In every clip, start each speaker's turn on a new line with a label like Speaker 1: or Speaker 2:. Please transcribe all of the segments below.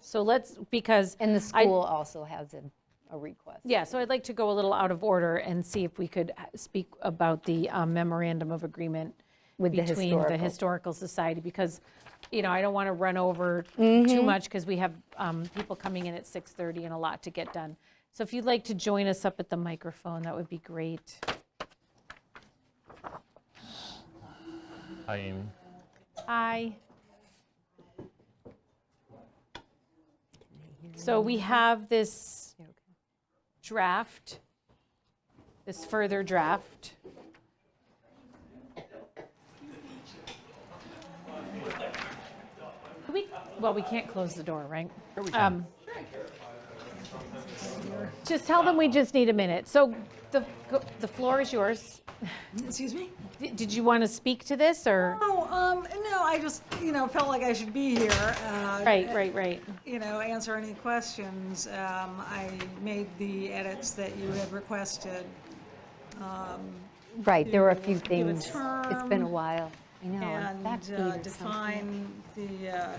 Speaker 1: So let's, because,
Speaker 2: And the
Speaker 1: I-
Speaker 2: school also has a, a request.
Speaker 1: yeah, so I'd like to go a little out of order and see if we could uh, speak about the um, memorandum of agreement
Speaker 2: With the
Speaker 1: between the
Speaker 2: historical.
Speaker 1: Historical Society, because, you know, I don't want to run over
Speaker 2: Mm-hmm.
Speaker 1: too much, because we have um, people coming in at 6:30 and a lot to get done. So if you'd like to join us up at the microphone, that would be great.
Speaker 3: Hi, Amy.
Speaker 1: Hi. So we have this draft, this further draft. Can we, well, we can't close the door, right? Um, Just tell them we just need a minute. So the, the floor is yours.
Speaker 4: Excuse me?
Speaker 1: Did did you want to speak to this, or?
Speaker 4: Oh, um, no, I just, you know, felt like I should be here. uh,
Speaker 1: Right, right, right.
Speaker 4: You know, answer any questions. Um, I made the edits that you had requested.
Speaker 2: Right, there were a few
Speaker 4: Do a
Speaker 2: things. It's been a
Speaker 4: term
Speaker 2: while. I know.
Speaker 4: And
Speaker 2: back feet
Speaker 4: uh,
Speaker 2: or something.
Speaker 4: define the, uh,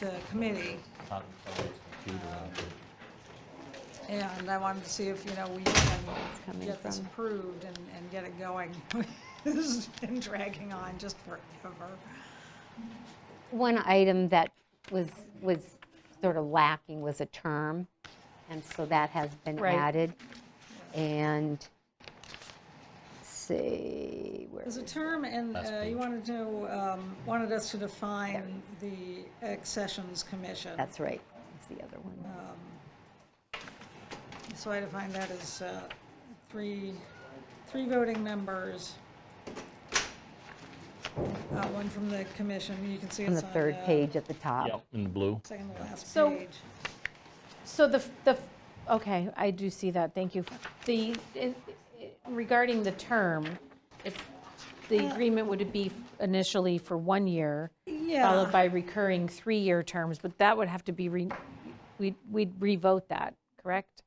Speaker 4: the committee.
Speaker 3: Not someone's computer out there.
Speaker 4: And I wanted to see if, you know, we can
Speaker 2: coming
Speaker 4: get this
Speaker 2: from-
Speaker 4: approved and, and get it going. This has been dragging on just forever.
Speaker 2: One item that was, was sort of lacking was a term, and so that has been
Speaker 1: Right.
Speaker 2: added. And, let's see, where,
Speaker 4: There's a term, and
Speaker 3: Last
Speaker 4: uh,
Speaker 3: page.
Speaker 4: you wanted to, um, wanted us to define the accessions commission.
Speaker 2: that's right, that's the other one.
Speaker 4: Uh, So I define that as uh, three, three voting members. Uh, One from the commission, you can see
Speaker 2: On
Speaker 4: it's
Speaker 2: the
Speaker 4: on
Speaker 2: third
Speaker 4: the
Speaker 2: page at the top.
Speaker 3: Yep, in blue.
Speaker 4: Second to last
Speaker 1: So-
Speaker 4: page.
Speaker 1: So the, the, okay, I do see that, thank you. The, in- regarding the term, if the agreement would be initially for one year,
Speaker 4: Yeah,
Speaker 1: followed by recurring three-year terms, but that would have to be, re we'd we'd revote that, correct?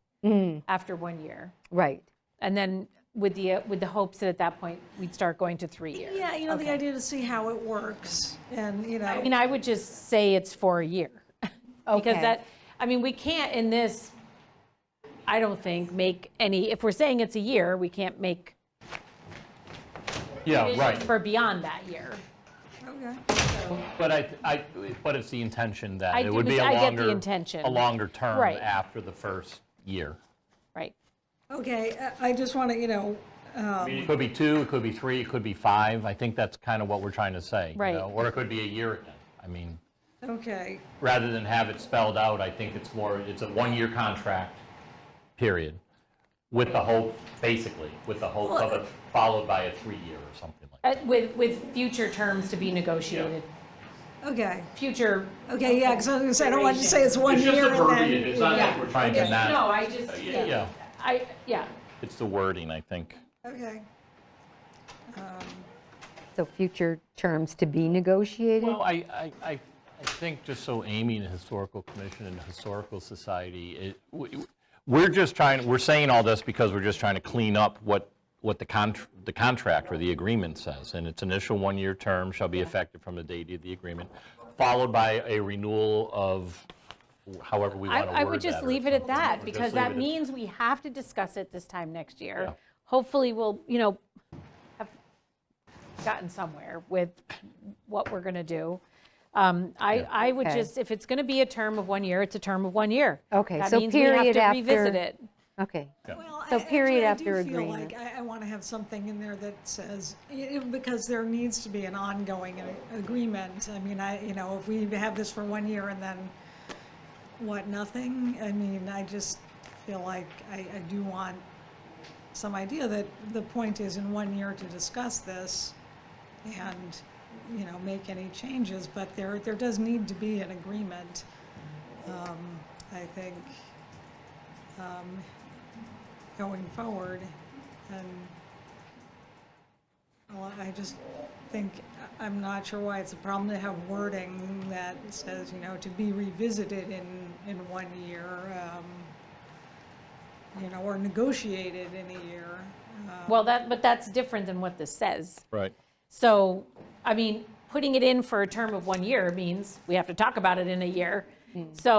Speaker 1: After one year.
Speaker 2: Right,
Speaker 1: And then with the, uh, with the hopes that at that point, we'd start going to three years.
Speaker 4: yeah, you know, the
Speaker 1: Okay.
Speaker 4: idea to see how it works, and, you
Speaker 1: I
Speaker 4: know,
Speaker 1: mean, I would just say it's for a year. Because
Speaker 2: Okay.
Speaker 1: that, I mean, we can't in this, I don't think, make any, if we're saying it's a year, we can't make
Speaker 3: Yeah, right.
Speaker 1: for beyond that year.
Speaker 4: okay.
Speaker 3: But I, I, but it's the intention
Speaker 1: I
Speaker 3: that it
Speaker 1: do-
Speaker 3: would be a
Speaker 1: I
Speaker 3: longer.
Speaker 1: get the intention.
Speaker 3: A longer term
Speaker 1: Right.
Speaker 3: after the first year.
Speaker 1: Right.
Speaker 4: Okay, I- I just want to, you know,
Speaker 1: Um,
Speaker 3: I mean, It could be two, it could be three, it could be five. I think that's kind of what we're trying to say. you
Speaker 1: Right.
Speaker 3: know, Or it could be a year again. I mean,
Speaker 4: okay,
Speaker 3: rather than have it spelled out, I think it's more, it's a one-year contract, period. With the hope, basically, with the hope of it followed by a three-year or something like that.
Speaker 1: Uh, With, with future terms to be negotiated,
Speaker 4: okay.
Speaker 1: future.
Speaker 4: Okay, yeah, because I was gonna say, I don't want you to say it's one year and then.
Speaker 3: like we're trying to not.
Speaker 1: No, I just,
Speaker 3: Uh, yeah, yeah.
Speaker 1: yeah, I, yeah,
Speaker 3: It's the wording, I think.
Speaker 4: Okay,
Speaker 2: so future terms to be negotiated?
Speaker 3: Well, I, I, I I think just so Amy and the Historical Commission and the Historical Society, it- we- we're just trying, we're saying all this because we're just trying to clean up what, what the contr the contract or the agreement says. And its initial one-year term shall be effective from the date of the agreement, followed by a renewal of however we
Speaker 1: I,
Speaker 3: want to word that.
Speaker 1: I would just
Speaker 3: or
Speaker 1: leave it at
Speaker 3: something.
Speaker 1: that,
Speaker 3: We'll just
Speaker 1: because
Speaker 3: leave
Speaker 1: that
Speaker 3: it at-
Speaker 1: means we have to discuss it this time next year.
Speaker 3: Yeah.
Speaker 1: Hopefully, we'll, you know, have gotten somewhere with what we're going to do. Um, I, I would
Speaker 2: Okay.
Speaker 1: just, if it's going to be a term of one year, it's a term of one year.
Speaker 2: Okay,
Speaker 1: That
Speaker 2: so
Speaker 1: means we have
Speaker 2: period
Speaker 1: to revisit
Speaker 2: after-
Speaker 1: it.
Speaker 2: Okay,
Speaker 4: well, I-
Speaker 2: So
Speaker 4: actually,
Speaker 2: period
Speaker 4: I
Speaker 2: after
Speaker 4: do feel
Speaker 2: agreement.
Speaker 4: like I, I want to have something in there that says, i- i- because there needs to be an ongoing a- agreement. I mean, I, you know, if we have this for one year and then what, nothing? I mean, I just feel like I, I do want some idea that the point is in one year to discuss this and, you know, make any changes, but there, there does need to be an agreement. um, I think, um, going forward. And well, I just think, I- I'm not sure why it's a problem to have wording that says, you know, to be revisited in, in one year, um, you know, or negotiated in a year. Uh,
Speaker 1: Well, that, but that's different than what this says.
Speaker 3: Right.
Speaker 1: So,
Speaker 2: Hmm.
Speaker 1: I mean, putting it in for a term of one year means we have to talk about it in a year. So